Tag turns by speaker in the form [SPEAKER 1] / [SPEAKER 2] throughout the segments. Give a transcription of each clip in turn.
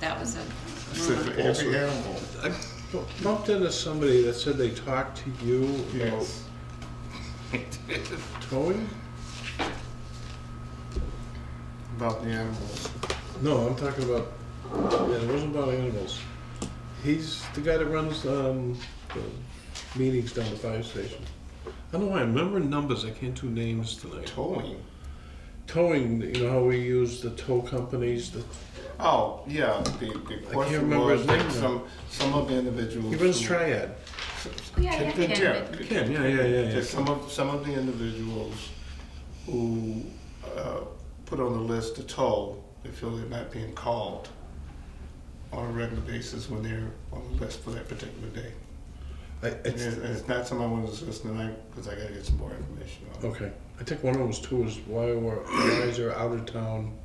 [SPEAKER 1] that was a
[SPEAKER 2] Said
[SPEAKER 1] rumor.
[SPEAKER 2] for every animal,
[SPEAKER 3] Bumped into somebody that said they talked to you about
[SPEAKER 2] yes.
[SPEAKER 3] towing?
[SPEAKER 2] About the animals.
[SPEAKER 3] No, I'm talking about, yeah, it wasn't about animals. He's the guy that runs um, the meetings down the fire station. I don't know why, I'm remembering numbers, I can't do names tonight.
[SPEAKER 2] Towing.
[SPEAKER 3] Towing, you know how we use the tow companies, the,
[SPEAKER 2] Oh, yeah, the, the question
[SPEAKER 3] remember
[SPEAKER 2] was,
[SPEAKER 3] his name now.
[SPEAKER 2] some, some of the individuals.
[SPEAKER 3] he runs
[SPEAKER 2] who-
[SPEAKER 3] Triad.
[SPEAKER 1] Oh, Yeah, yeah,
[SPEAKER 2] Ken-
[SPEAKER 1] Ken, but-
[SPEAKER 3] Ken, yeah, yeah, yeah, yeah.
[SPEAKER 2] There's some of, some of the individuals who, uh, put on the list to toll, they feel they're not being called on a regular basis when they're on the list for that particular day.
[SPEAKER 3] I,
[SPEAKER 2] And
[SPEAKER 3] it's,
[SPEAKER 2] it's, and it's not something I want to discuss tonight, because I gotta get some more information on.
[SPEAKER 3] okay, I think one of them was tours, why were, why is there out of town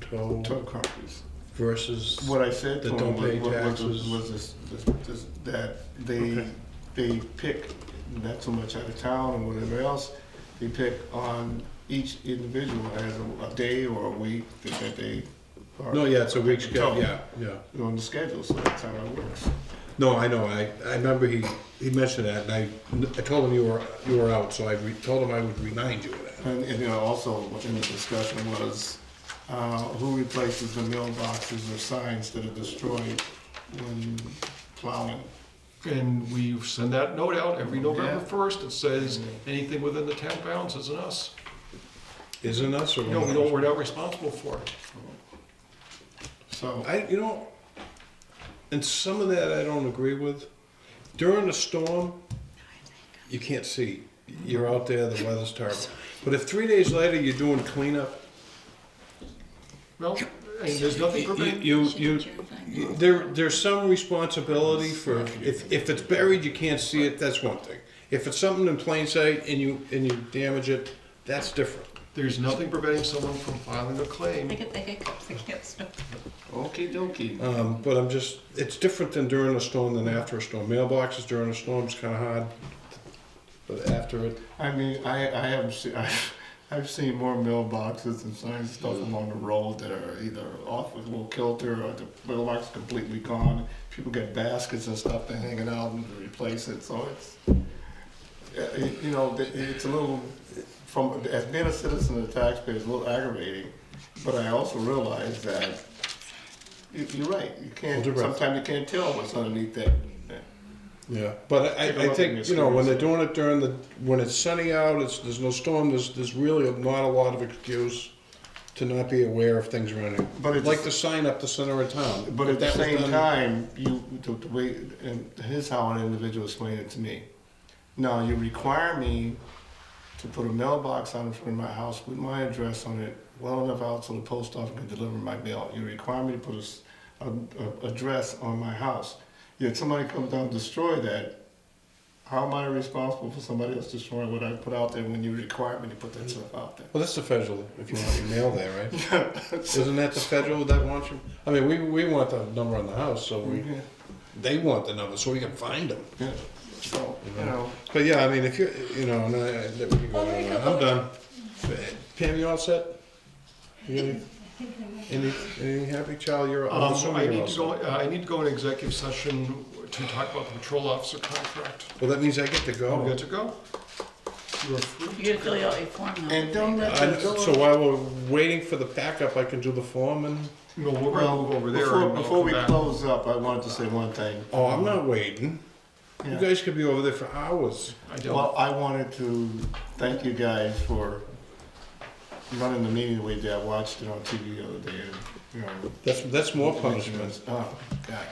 [SPEAKER 3] tow
[SPEAKER 2] Tow companies.
[SPEAKER 3] versus?
[SPEAKER 2] What I said to
[SPEAKER 3] That
[SPEAKER 2] them
[SPEAKER 3] don't pay
[SPEAKER 2] was, was, was,
[SPEAKER 3] taxes.
[SPEAKER 2] was this, this, this, that they,
[SPEAKER 3] Okay.
[SPEAKER 2] they pick, not so much out of town and whatever else, they pick on each individual as a, a day or a week that that they are.
[SPEAKER 3] No, yeah, it's a week's,
[SPEAKER 2] Tow.
[SPEAKER 3] yeah, yeah.
[SPEAKER 2] On the schedule, so that's how it works.
[SPEAKER 3] No, I know. I, I remember he, he mentioned that, and I, I told him you were you were out, so I re- told him I would remind you of that.
[SPEAKER 2] And, and, you know, also in the discussion was, uh, who replaces the mailboxes or signs that are destroyed when plowing?
[SPEAKER 4] And we send that note out every November
[SPEAKER 2] Yeah.
[SPEAKER 4] first, it says, anything within the town bounds isn't us.
[SPEAKER 3] Isn't us or
[SPEAKER 4] You
[SPEAKER 2] Mm-hmm.
[SPEAKER 4] know, we don't, we're not responsible for it.
[SPEAKER 2] So,
[SPEAKER 3] I you know, and some of that I don't agree with. During a storm, you can't see. You're out there. The weather's terrible. But if three days later you're doing cleanup,
[SPEAKER 4] Well, and there's nothing
[SPEAKER 3] you
[SPEAKER 4] preventing,
[SPEAKER 3] you,
[SPEAKER 1] Should
[SPEAKER 3] you,
[SPEAKER 1] adjourn fine.
[SPEAKER 3] you there there's some responsibility for if if it's buried you can't see it. That's one thing. If it's something in plain sight and you and you damage it, that's different.
[SPEAKER 4] there's nothing preventing someone from filing a claim.
[SPEAKER 1] I get the hiccups, I can't stop.
[SPEAKER 2] okey dokey.
[SPEAKER 3] Um, but I'm just, it's different than during a storm than after a storm. Mailboxes during a storm is kind of hard, but after it,
[SPEAKER 2] I mean, I, I have seen, I've, I've seen more mailboxes and signs and stuff along the road that are either off with a little kilter or the mailbox completely gone. People get baskets and stuff to hang it out and replace it, so it's, yeah, it- you know, it- it's a little, from, as being a citizen and a taxpayer, it's a little aggravating. But I also realize that, you- you're right, you can't,
[SPEAKER 3] Hold your breath.
[SPEAKER 2] sometimes you can't tell what's underneath that. that-
[SPEAKER 3] yeah.
[SPEAKER 2] Take
[SPEAKER 3] But I,
[SPEAKER 2] a look
[SPEAKER 3] I
[SPEAKER 2] at
[SPEAKER 3] think,
[SPEAKER 2] this
[SPEAKER 3] you know, when they're
[SPEAKER 2] screen.
[SPEAKER 3] doing it during the, when it's sunny out, it's, there's no storm, there's, there's really not a lot of excuse to not be aware of things running.
[SPEAKER 2] But it's-
[SPEAKER 3] Like the sign up the center of town.
[SPEAKER 2] But at the
[SPEAKER 3] That was
[SPEAKER 2] same
[SPEAKER 3] done-
[SPEAKER 2] time, you, the, the way, and here's how an individual explained it to me. Now, you require me to put a mailbox out in front of my house with my address on it, well enough out so the post office can deliver my mail. You require me to put a s- a, a- address on my house. Yet somebody comes down and destroy that, how am I responsible for somebody else destroying what I put out there when you require me to put that stuff out there?
[SPEAKER 3] Well, that's the federal, if you want your mail there, right? Isn't that the federal that wants you? I mean, we, we want the number on the house, so we,
[SPEAKER 4] Mm-hmm.
[SPEAKER 2] Yeah,
[SPEAKER 3] they want the number, so we can find them.
[SPEAKER 2] yeah. So, you know,
[SPEAKER 3] But yeah, I mean, if you, you know, and I, I, we can go on. I'm done. Pam, you all set? You got any, any, any happy child? You're I'm
[SPEAKER 4] Um, I
[SPEAKER 3] assuming you're all
[SPEAKER 4] need to
[SPEAKER 3] set.
[SPEAKER 4] go, uh, I need to go in executive session to talk about the patrol officer contract.
[SPEAKER 3] Well, that means I get to
[SPEAKER 4] I'm
[SPEAKER 3] go.
[SPEAKER 4] good to go. You're free.
[SPEAKER 1] You gotta fill out your form now.
[SPEAKER 2] and don't let
[SPEAKER 3] I,
[SPEAKER 2] the door.
[SPEAKER 3] so while we're waiting for the packup, I can do the form and.
[SPEAKER 4] No, we're gonna
[SPEAKER 2] Well,
[SPEAKER 4] move over there.
[SPEAKER 2] before,
[SPEAKER 4] and I'll
[SPEAKER 2] before
[SPEAKER 4] come
[SPEAKER 2] we
[SPEAKER 4] back.
[SPEAKER 2] close up, I wanted to say one thing.
[SPEAKER 3] Oh, I'm not waiting. You
[SPEAKER 2] Yeah.
[SPEAKER 3] guys could be over there for hours.
[SPEAKER 4] I don't,
[SPEAKER 2] Well, I wanted to thank you guys for running the meeting the way that I watched it on TV the other day, and, you know.
[SPEAKER 3] That's that's more punishment.
[SPEAKER 2] Oh, God.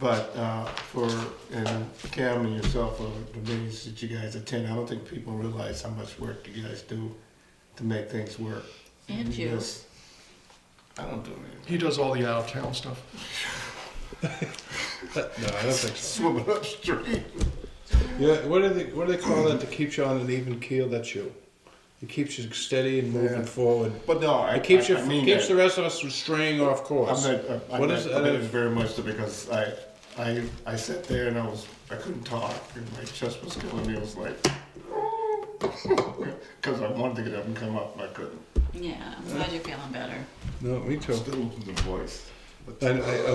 [SPEAKER 2] But, uh, for, and Cam and yourself, uh, the meetings that you guys attend, I don't think people realize how much work you guys do to make things work.
[SPEAKER 1] And you.
[SPEAKER 2] just- I don't do anything.
[SPEAKER 4] he does all the out-of-town stuff.
[SPEAKER 3] No, I don't think so.
[SPEAKER 2] Swimming upstream.
[SPEAKER 3] Yeah, what do they what do they call that that keeps you on an even keel? That's you. It keeps you steady and moving
[SPEAKER 2] Yeah.
[SPEAKER 3] forward.
[SPEAKER 2] But no, I, I I
[SPEAKER 3] It
[SPEAKER 2] mean
[SPEAKER 3] keeps you,
[SPEAKER 2] that.
[SPEAKER 3] keeps the rest of us from straying off
[SPEAKER 2] I'm uh,
[SPEAKER 3] course.
[SPEAKER 2] not, I'm
[SPEAKER 3] What
[SPEAKER 2] not
[SPEAKER 3] is- uh,
[SPEAKER 2] committed very much to because I, I, I sat there and I was, I couldn't talk and my chest was killing me. It was like, because I wanted to get up and come up, and I couldn't.
[SPEAKER 1] Yeah, I'm glad you're feeling better.
[SPEAKER 3] No, me too.
[SPEAKER 2] Still losing the voice.
[SPEAKER 4] Let's-
[SPEAKER 3] I, I,